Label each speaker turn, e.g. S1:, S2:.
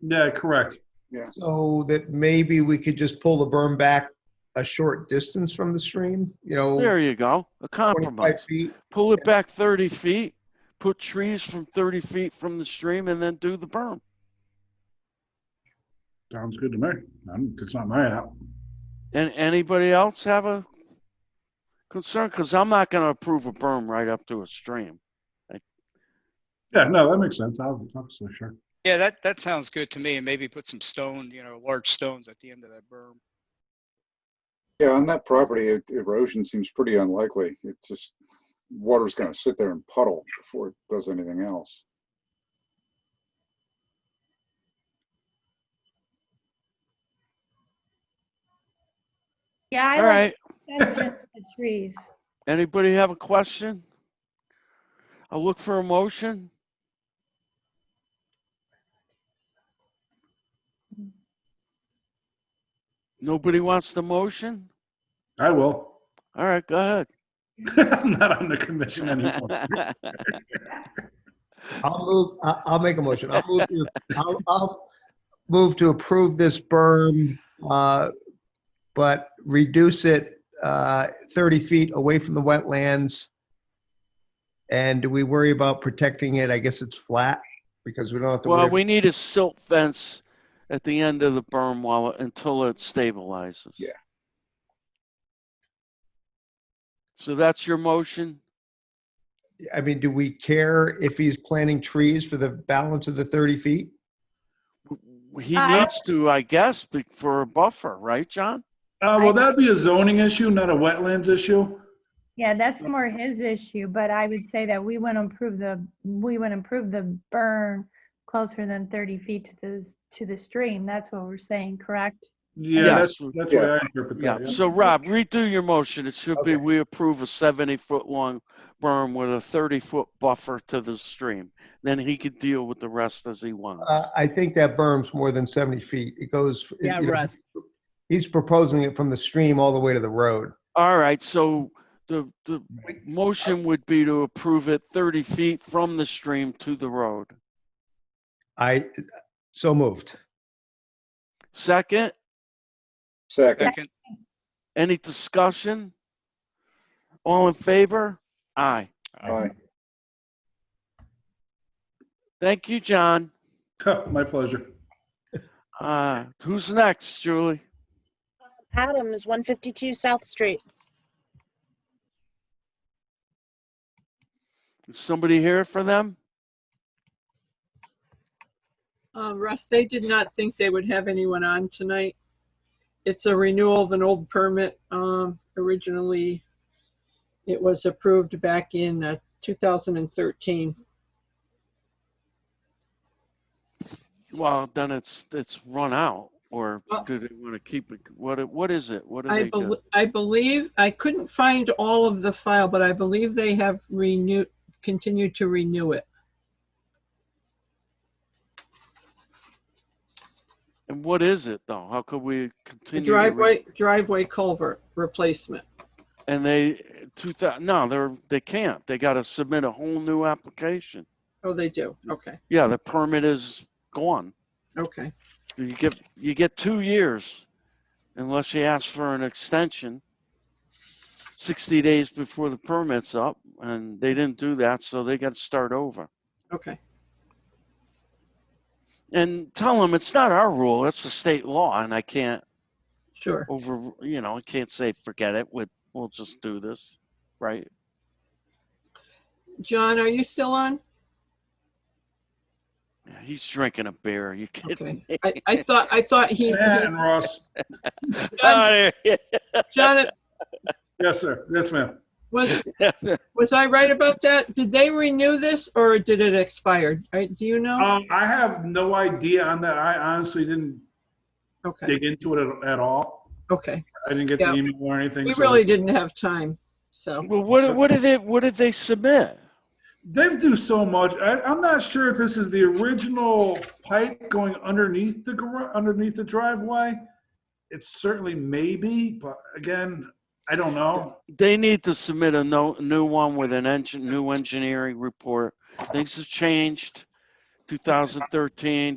S1: Yeah, correct.
S2: So that maybe we could just pull the berm back a short distance from the stream, you know,
S3: There you go,
S2: 25
S3: a compromise.
S2: feet.
S3: Pull it back thirty feet, put trees from thirty feet from the stream and then do the berm.
S1: Sounds good to me. I'm, it's not my app.
S3: And anybody else have a concern? Cause I'm not gonna approve a berm right up to a stream.
S1: Yeah, no, that makes sense. Ob- Obviously, sure.
S4: Yeah, that, that sounds good to me. And maybe put some stone, you know, large stones at the end of that berm.
S5: Yeah, on that property, e- erosion seems pretty unlikely. It's just, water's gonna sit there and puddle before it does anything else.
S6: Yeah,
S3: All
S6: I like
S3: right,
S6: suggestion of the trees.
S3: anybody have a question? I'll look for a motion. Nobody wants the motion?
S1: I will.
S3: All right, go ahead.
S1: I'm not on the commission anymore.
S2: I'll move, I- I'll make a motion. I'll move, to- I'll, I'll move to approve this berm, uh, but reduce it, uh, 30 feet away from the wetlands. And do we worry about protecting it? I guess it's flat because we don't have to
S3: Well,
S2: worry.
S3: we need a silt fence at the end of the berm while, it- until it stabilizes.
S5: Yeah.
S3: So that's your motion?
S2: I mean, do we care if he's planting trees for the balance of the 30 feet?
S3: He
S6: I-
S3: needs to, I guess, be- for a buffer, right, John?
S1: Uh, well, that'd be a zoning issue, not a wetlands issue.
S6: Yeah, that's more his issue, but I would say that we want to improve the, we want to improve the burn closer than 30 feet to the, to the stream. That's what we're saying, correct?
S1: Yeah, that's,
S3: Yes.
S1: that's the way I interpret
S3: Yeah,
S1: that. yeah.
S3: so Rob, redo your motion. It should be, we approve a seventy-foot-long berm with a thirty-foot buffer to the stream. Then he could deal with the rest as he wants.
S2: Uh, I think that berm's more than 70 feet. It goes. it-
S7: Yeah,
S2: you know,
S7: Russ.
S2: He's proposing it from the stream all the way to the road.
S3: All right, so the, the motion would be to approve it 30 feet from the stream to the road.
S2: I, so moved.
S3: Second,
S5: Second,
S4: Second,
S3: any discussion? All in favor? Aye.
S5: aye.
S3: Thank you, John.
S1: My pleasure.
S3: Uh, who's next, Julie?
S8: Adams, 152 South Street.
S3: Is somebody here for them?
S7: Uh, Russ, they did not think they would have anyone on tonight. It's a renewal of an old permit. Um, originally, it was approved back in uh, 2013.
S3: Well, then it's, it's run out, or
S7: Well-
S3: do they want to keep it? What, it- what is it? What do
S7: I,
S3: they
S7: bel
S3: do?
S7: I believe, I couldn't find all of the file, but I believe they have renewed, continued to renew it.
S3: And what is it, though? How could we
S7: The
S3: continue? to re-
S7: driveway, driveway culvert replacement.
S3: And they, two thousand, no, they're, they can't. They gotta submit a whole new application.
S7: Oh, they do. Okay,
S3: Yeah, the permit is gone.
S7: okay.
S3: You get, you get two years unless you ask for an extension. Sixty days before the permit's up and they didn't do that, so they gotta start over.
S7: Okay.
S3: And tell them it's not our rule, it's the state law and I can't
S7: Sure.
S3: over, you know, I can't say, forget it, we, we'll just do this, right?
S7: John, are you still on?
S3: He's drinking a beer, you kidding
S7: Okay.
S3: me?
S7: I, I thought, I thought he,
S1: Yeah, and Ross,
S3: Outta here.
S7: John,
S1: yes, sir. Yes, ma'am.
S7: was, was I right about that? Did they renew this or did it expire? I- Do you know?
S1: Um, I have no idea on that. I honestly didn't
S7: Okay,
S1: dig into it at, at all.
S7: okay.
S1: I didn't get
S7: Yeah.
S1: the email or anything.
S7: We
S1: so-
S7: really didn't have time, so.
S3: Well, what, what did they, what did they submit?
S1: They do so much. I, I'm not sure if this is the original pipe going underneath the gar- underneath the driveway. It's certainly maybe, but again, I don't know.
S3: They need to submit a no, new one with an engine, new engineering report. Things have changed. 2013,